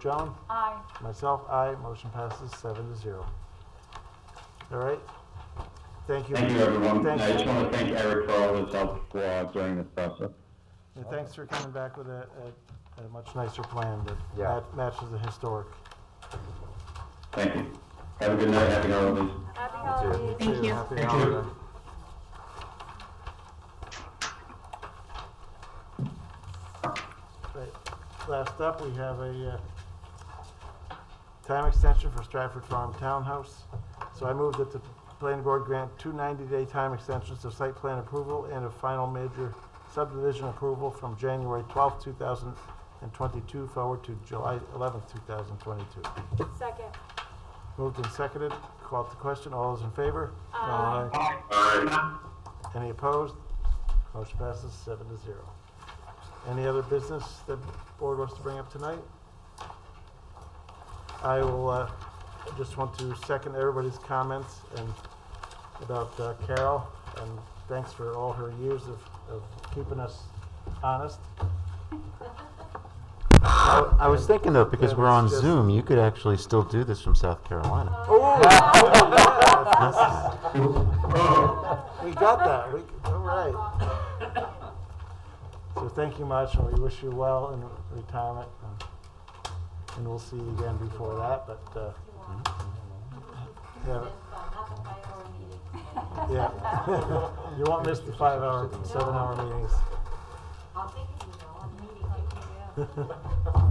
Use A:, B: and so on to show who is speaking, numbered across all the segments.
A: John?
B: Aye.
A: Myself, aye. Motion passes seven to zero. All right? Thank you.
C: Thank you, everyone.
A: Thank
C: I just
A: you.
C: want to thank Eric for all his help uh, during this process.
A: And thanks for coming back with a, a, a much nicer plan that
D: Yeah.
A: mat- matches the historic.
C: Thank you. Have a good night, happy holidays.
B: Happy holidays.
A: Thank you. Happy holiday. Right. Last up, we have a, uh, time extension for Stratford Farm Townhouse. So I move that the planning board grant two ninety-day time extensions of site plan approval and a final major subdivision approval from January twelfth, two thousand and twenty-two forward to July eleventh, two thousand twenty-two.
B: Second.
A: Moved and seconded, called to question, all those in favor?
B: Aye.
A: Any opposed? Motion passes seven to zero. Any other business that board wants to bring up tonight? I will, uh, just want to second everybody's comments and about uh, Carol, and thanks for all her years of, of keeping us honest.
D: I I was thinking though, because
A: Yeah,
D: we're on
A: it's just-
D: Zoom, you could actually still do this from South Carolina.
A: We got that, we, all right. So thank you much, and we wish you well in retirement, and, and we'll see you again before that, but, uh, yeah, yeah. You won't miss the five-hour, seven-hour meetings.
E: I'm thinking, you know, I'm meeting, like,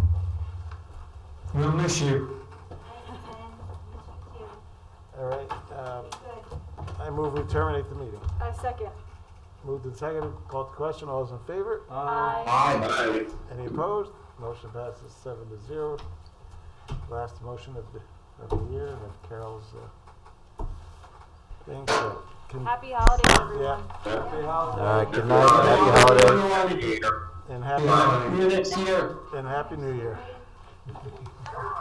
F: We'll miss you.
E: you know,
A: All right, uh,
E: good.
A: I move we terminate the meeting.
B: I Uh, second.
A: Moved and seconded, called to question, all those in favor?
B: Aye.
C: Bye.
A: Any opposed? Motion passes seven to zero. Last motion of the, of the year, and if Carol's, uh, thing, so. can-
B: Happy holidays,
A: Yeah.
B: everyone.
A: Happy
D: All
A: holidays,
D: right, Uh, good night, happy holidays.
F: Everyone,
A: and
F: See
A: happy,
F: you next year.
A: and happy new year.